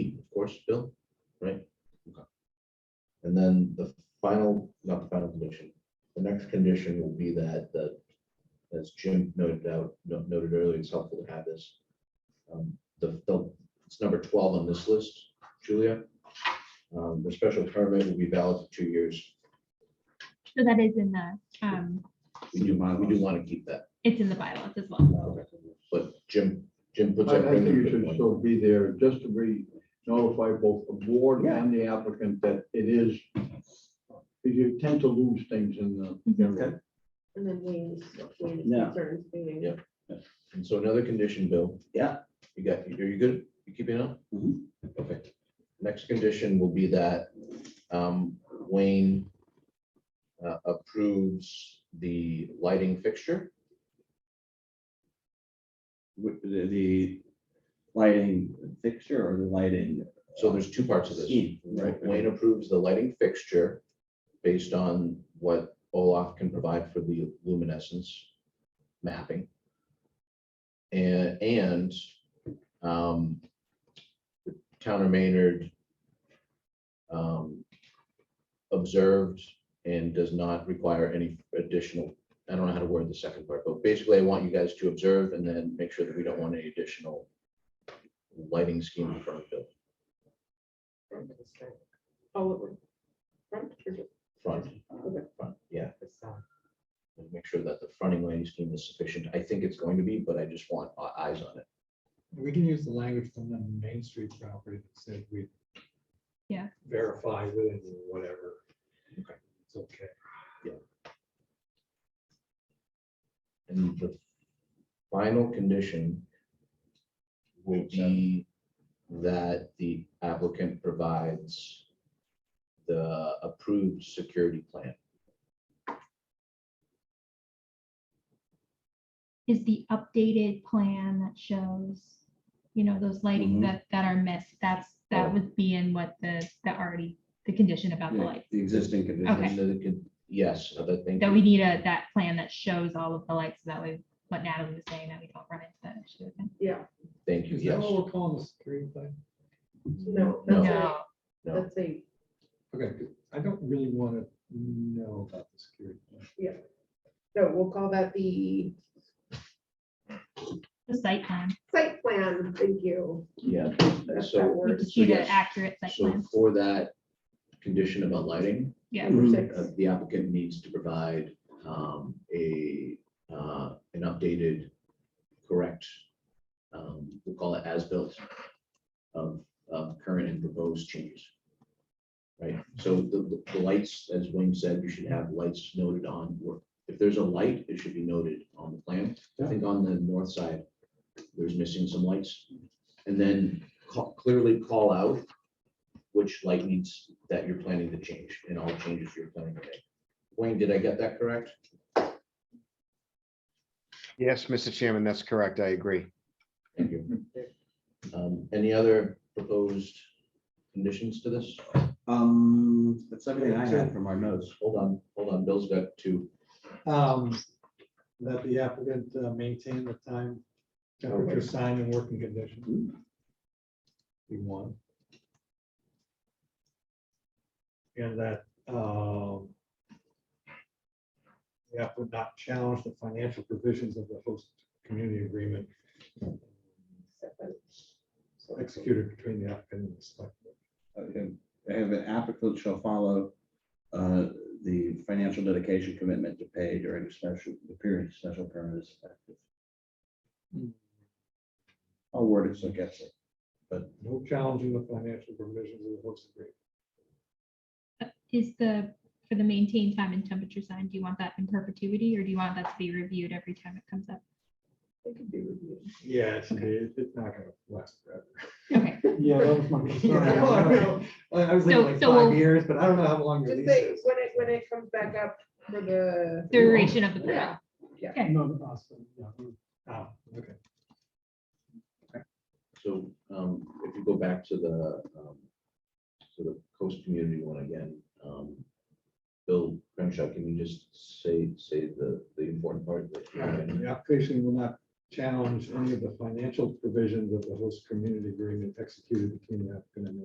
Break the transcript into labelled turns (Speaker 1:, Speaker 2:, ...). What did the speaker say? Speaker 1: much bill, right? And then the final, not the final condition, the next condition will be that, that, as Jim noted out, no- noted earlier, it's helpful to have this. Um, The, the, it's number twelve on this list, Julia. Um, The special permit will be valid for two years.
Speaker 2: So that is in the, um,
Speaker 1: We do, we do want to keep that,
Speaker 2: it's in the bylaws as well.
Speaker 1: but Jim, Jim puts.
Speaker 3: I,
Speaker 1: up
Speaker 3: I think
Speaker 1: really
Speaker 3: you
Speaker 1: good
Speaker 3: should
Speaker 1: point.
Speaker 3: still be there, just to be notify both the board
Speaker 1: Yeah.
Speaker 3: and the applicant that it is. because You tend to lose things in the.
Speaker 2: Mhm.
Speaker 3: area.
Speaker 4: And then we, we
Speaker 5: Yeah.
Speaker 4: concerns meeting.
Speaker 1: Yeah. And so another condition, Bill.
Speaker 5: Yeah.
Speaker 1: You got, are you good? You keeping up?
Speaker 5: Mhm.
Speaker 1: Okay. Next condition will be that um, Wayne uh, approves the lighting fixture.
Speaker 5: With the, the lighting fixture or the lighting?
Speaker 1: So there's two parts of this.
Speaker 5: Scheme, right?
Speaker 1: Wayne approves the lighting fixture based on what Olaf can provide for the luminescence mapping. And, and um, the Towner Maynard um, observed and does not require any additional, I don't know how to word the second part, but basically I want you guys to observe and then make sure that we don't want any additional lighting scheme in front of the
Speaker 4: All over. Front or just
Speaker 1: front,
Speaker 4: Okay.
Speaker 1: front, yeah.
Speaker 4: the side?
Speaker 1: and make sure that the fronting lighting scheme is sufficient. I think it's going to be, but I just want our eyes on it.
Speaker 6: We can use the language from the Main Street property that said we.
Speaker 2: Yeah.
Speaker 6: Verify with it or whatever.
Speaker 1: Okay.
Speaker 6: It's okay.
Speaker 1: And the final condition will be that the applicant provides the approved security plan.
Speaker 2: Is the updated plan that shows, you know, those lighting
Speaker 1: Mm-hmm.
Speaker 5: Mhm.
Speaker 2: that, that are missed, that's, that
Speaker 1: Oh.
Speaker 2: would be in what the, the already, the condition about the
Speaker 5: Yeah,
Speaker 2: lights.
Speaker 5: The existing
Speaker 1: And
Speaker 5: conditions.
Speaker 1: then it could- Yes, I think.
Speaker 2: That we need a, that plan that shows all of the lights, so that way, what Natalie was saying, that we don't run into that issue again.
Speaker 4: Yeah,
Speaker 1: Thank you,
Speaker 6: Is that
Speaker 1: yes.
Speaker 6: what we're calling the security thing?
Speaker 4: no,
Speaker 1: No.
Speaker 4: that's a,
Speaker 2: No,
Speaker 1: No,
Speaker 4: that's a,
Speaker 6: Okay, 'cause I don't really want to know about the security. plan.
Speaker 4: no, we'll call that the
Speaker 2: the site plan,
Speaker 4: site plan, thank you.
Speaker 1: yeah.
Speaker 4: That's that
Speaker 1: So,
Speaker 2: we
Speaker 4: word.
Speaker 2: just need an
Speaker 1: yes.
Speaker 2: accurate site
Speaker 1: so
Speaker 2: plan,
Speaker 1: for that condition about lighting,
Speaker 2: yeah.
Speaker 4: Number
Speaker 5: Mhm.
Speaker 4: six.
Speaker 1: uh, the applicant needs to provide um, a, uh, an updated, correct, um, we'll call it as-built of, of current and proposed changes. Right, so the, the- the lights, as Wayne said, you should have lights noted on, or if there's a light, it should be noted on the plan. I think on the north side, there's missing some lights. And then ca- clearly call out which light needs that you're planning to change and all changes you're planning to make. Wayne, did I get that correct?
Speaker 7: Yes, Mr. Chairman, that's correct. I agree.
Speaker 1: Thank you. Um, Any other proposed conditions to this?
Speaker 5: Um, that's everything I had from our notes.
Speaker 1: Hold on, hold on, Bill's got two.
Speaker 6: Um, That the applicant uh, maintain the time, temperature, sign and working condition. Be one. And that, um, the applicant not challenge the financial provisions of the host community agreement executed between the applicant and the select. board.
Speaker 5: Okay, I have an applicant shall follow uh, the financial dedication commitment to pay during the special, the period of special permit is effective. I'll word it so it gets it.
Speaker 6: No challenging the financial provisions of the host agreement.
Speaker 2: Is the, for the maintain time and temperature sign, do you want that in perpetuity, or do you want that to be reviewed every time it comes up?
Speaker 4: It could be reviewed.
Speaker 6: Yeah, it's, it's not gonna last forever.
Speaker 2: Okay,
Speaker 6: Yeah, that was my concern. I don't know. I I was
Speaker 2: So-
Speaker 6: thinking like
Speaker 2: so
Speaker 6: five
Speaker 2: we'll-
Speaker 6: years, but I don't know how long your
Speaker 4: Just
Speaker 6: lease
Speaker 4: say,
Speaker 6: is.
Speaker 4: when it, when it comes back up for the.
Speaker 2: duration of the permit.
Speaker 4: Yeah,
Speaker 2: Okay.
Speaker 6: No, no, awesome, yeah. Oh, okay.
Speaker 1: So um, if you go back to the, um, to the coast community one again, um, Bill Crenshaw, can you just say, say the, the important part? that you had?
Speaker 6: The application will not challenge any of the financial provisions of the host community agreement executed between the applicant and the